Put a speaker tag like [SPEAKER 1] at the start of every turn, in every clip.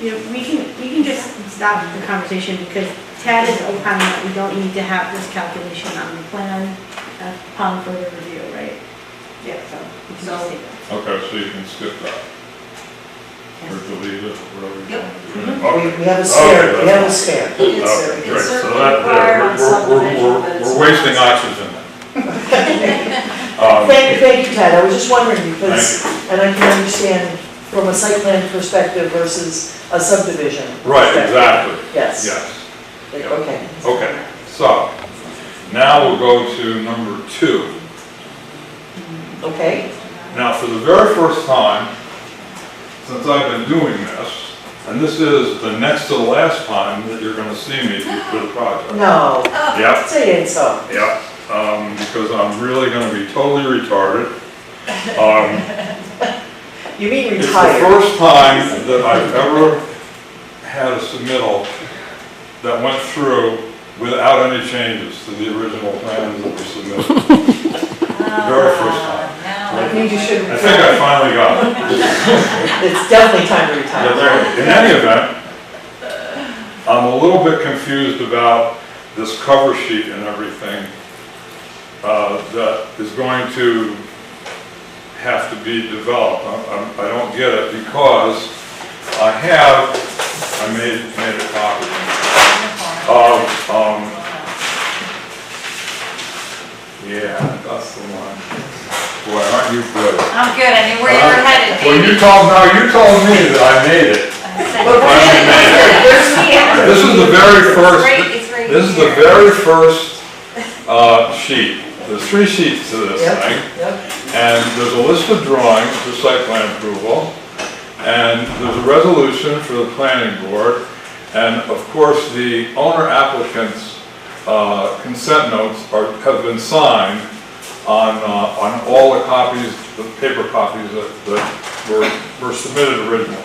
[SPEAKER 1] you know, we can, we can just stop the conversation because Tad is opining that we don't need to have this calculation on the plan uh, upon further review, right? Yeah, so. we can just
[SPEAKER 2] So-
[SPEAKER 1] take that.
[SPEAKER 3] Okay, so you can skip that, or
[SPEAKER 1] Yes.
[SPEAKER 3] delete it, or whatever you
[SPEAKER 2] Yep.
[SPEAKER 3] want
[SPEAKER 4] We
[SPEAKER 3] to do.
[SPEAKER 4] we have a stair, we have a stair.
[SPEAKER 2] It's
[SPEAKER 3] Okay,
[SPEAKER 2] cer-
[SPEAKER 3] great,
[SPEAKER 2] it's
[SPEAKER 3] so
[SPEAKER 2] certainly
[SPEAKER 3] that,
[SPEAKER 2] required on
[SPEAKER 3] yeah, we're, we're,
[SPEAKER 2] subdivision, but
[SPEAKER 3] we're,
[SPEAKER 2] it's
[SPEAKER 3] we're
[SPEAKER 2] not-
[SPEAKER 3] wasting oxygen. Um,
[SPEAKER 4] Thank you, thank you, Ted, I was just wondering because, and I can understand from a site plan perspective versus a subdivision.
[SPEAKER 3] Right,
[SPEAKER 4] perspective.
[SPEAKER 3] exactly,
[SPEAKER 4] Yes,
[SPEAKER 3] yes.
[SPEAKER 4] okay.
[SPEAKER 3] Okay, so, now we'll go to number two.
[SPEAKER 4] Okay,
[SPEAKER 3] Now, for the very first time, since I've been doing this, and this is the next to the last time that you're gonna see me for the project.
[SPEAKER 4] no,
[SPEAKER 3] Yep,
[SPEAKER 4] say it so.
[SPEAKER 3] yep, um, because I'm really gonna be totally retarded. Um,
[SPEAKER 4] You mean
[SPEAKER 3] it's the
[SPEAKER 4] retired?
[SPEAKER 3] first time that I've ever had a submittal that went through without any changes to the original plans that were submitted. Very first time.
[SPEAKER 2] Now
[SPEAKER 4] I think you should
[SPEAKER 3] I think I finally got it.
[SPEAKER 4] It's definitely time to
[SPEAKER 3] Yeah,
[SPEAKER 4] retire.
[SPEAKER 3] there- In any event, I'm a little bit confused about this cover sheet and everything uh, that is going to have to be developed. I- I'm- I don't get it because I have, I made, made a copy of, um, yeah, that's the one. Boy, aren't you good?
[SPEAKER 2] I'm good, I knew where you were headed,
[SPEAKER 3] Well, you
[SPEAKER 2] baby.
[SPEAKER 3] told, now you told me that I made it.
[SPEAKER 4] But
[SPEAKER 3] I
[SPEAKER 4] wait a minute, there's-
[SPEAKER 3] This is the very
[SPEAKER 2] It's
[SPEAKER 3] first,
[SPEAKER 2] right, it's right
[SPEAKER 3] this is the
[SPEAKER 2] here.
[SPEAKER 3] very first uh, sheet. There's three sheets to this
[SPEAKER 4] Yep.
[SPEAKER 3] thing,
[SPEAKER 4] Yep,
[SPEAKER 3] and there's a list of drawings for site plan approval, and there's a resolution for the planning board, and of course, the owner applicant's uh, consent notes are, have been signed on, uh, on all the copies, the paper copies that that were were submitted originally.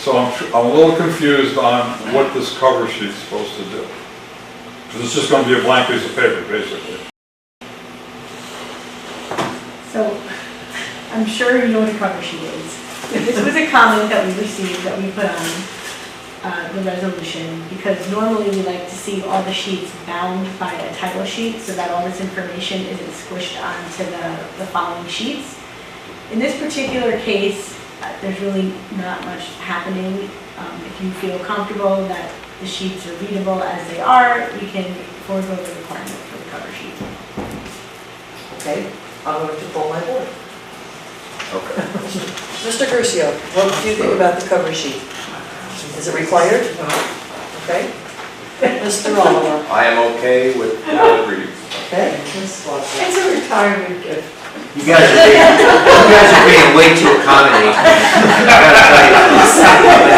[SPEAKER 3] So I'm, tr- I'm a little confused on what this cover sheet's supposed to do. Because it's just gonna be a blank piece of paper, basically.
[SPEAKER 1] So, I'm sure you know what a cover sheet is. This was a comment that we received that we put on uh, the resolution, because normally we like to see all the sheets bound by a title sheet, so that all this information isn't squished onto the, the following sheets. In this particular case, uh, there's really not much happening. Um, If you feel comfortable that the sheets are readable as they are, we can forego the requirement for the cover sheet.
[SPEAKER 4] okay, I'm going to pull my board.
[SPEAKER 3] Okay.
[SPEAKER 4] Mr. Crucio, what do you think about the cover sheet? Is it required? Okay. Mr. Oliver?
[SPEAKER 5] I am okay with how it reads.
[SPEAKER 4] Okay. Ms. Watson?
[SPEAKER 1] It's a retirement gift.
[SPEAKER 5] You guys are being, you guys are being way too accommodating. I gotta tell you. I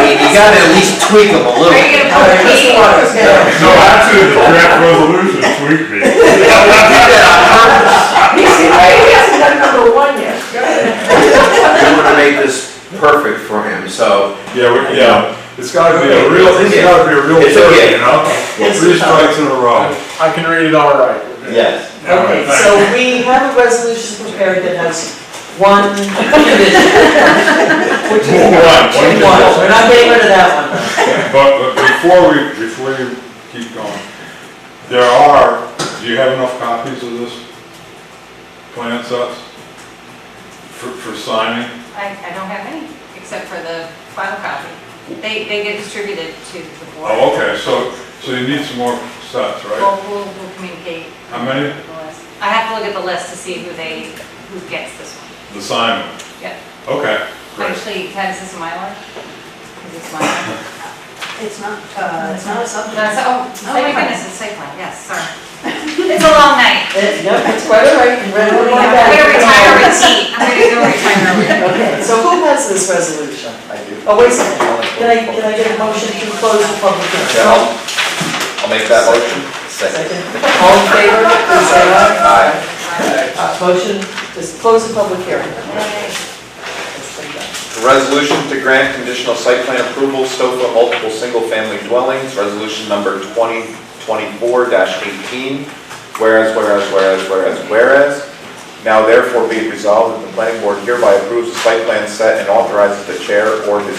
[SPEAKER 5] mean, you gotta at least tweak them a little.
[SPEAKER 2] Are you
[SPEAKER 5] bit.
[SPEAKER 2] gonna
[SPEAKER 4] All right,
[SPEAKER 2] put
[SPEAKER 4] Mr.
[SPEAKER 2] me?
[SPEAKER 4] Waters, yeah.
[SPEAKER 3] No, actually, the draft resolution tweaked me.
[SPEAKER 5] We did that
[SPEAKER 4] He hasn't done number one yet.
[SPEAKER 5] on purpose. We wanna make this perfect for him, so.
[SPEAKER 3] Yeah, we- yeah, it's gotta be a real, it's
[SPEAKER 5] Yeah.
[SPEAKER 3] gotta be a real
[SPEAKER 5] It's
[SPEAKER 3] thing,
[SPEAKER 5] okay.
[SPEAKER 3] you know?
[SPEAKER 4] It's
[SPEAKER 3] Three
[SPEAKER 4] okay.
[SPEAKER 3] strikes in a row.
[SPEAKER 6] I can read it all right.
[SPEAKER 5] Yes.
[SPEAKER 3] All right,
[SPEAKER 4] Okay,
[SPEAKER 3] thanks.
[SPEAKER 4] so we have a resolution prepared that has one condition. Which is.
[SPEAKER 3] One, one
[SPEAKER 4] One, we're not getting rid of that one.
[SPEAKER 3] But but before we, before you keep going, there are, do you have enough copies of this plan sets for, for signing?
[SPEAKER 2] I, I don't have any, except for the final copy. They, they get distributed to the board.
[SPEAKER 3] Oh, okay, so, so you need some more sets, right?
[SPEAKER 2] We'll, we'll, we'll communicate.
[SPEAKER 3] How many?
[SPEAKER 2] the list. I have to look at the list to see who they, who gets this one.
[SPEAKER 3] The sign?
[SPEAKER 2] Yeah.
[SPEAKER 3] Okay, great.
[SPEAKER 2] Actually, Ted, is this a Mylar? Is this Mylar?
[SPEAKER 7] It's not, uh, it's not a subdivision.
[SPEAKER 2] That's, oh, oh my
[SPEAKER 7] Site plan.
[SPEAKER 2] goodness, it's site plan, yes, sorry. It's a long night.
[SPEAKER 4] Eh, Yep, it's quite all right, and we're going
[SPEAKER 2] I'm
[SPEAKER 4] back.
[SPEAKER 2] gonna retire with heat. I'm gonna go retire with.
[SPEAKER 4] Okay, so who has this resolution?
[SPEAKER 5] I do.
[SPEAKER 4] Oh, wait a second, can I, can I get a motion to close the public
[SPEAKER 5] Okay,
[SPEAKER 4] hearing?
[SPEAKER 5] I'll, I'll make that motion. Second.
[SPEAKER 4] Second, all in favor, please say aye.
[SPEAKER 5] Aye.
[SPEAKER 4] Uh, Motion, just close the public hearing.
[SPEAKER 5] A Resolution to grant conditional site plan approval, SOFA multiple single-family dwellings, resolution number 2024-18. Whereas, whereas, whereas, whereas, whereas. Now therefore be it resolved that the planning board hereby approves the site plan set and authorizes the chair or his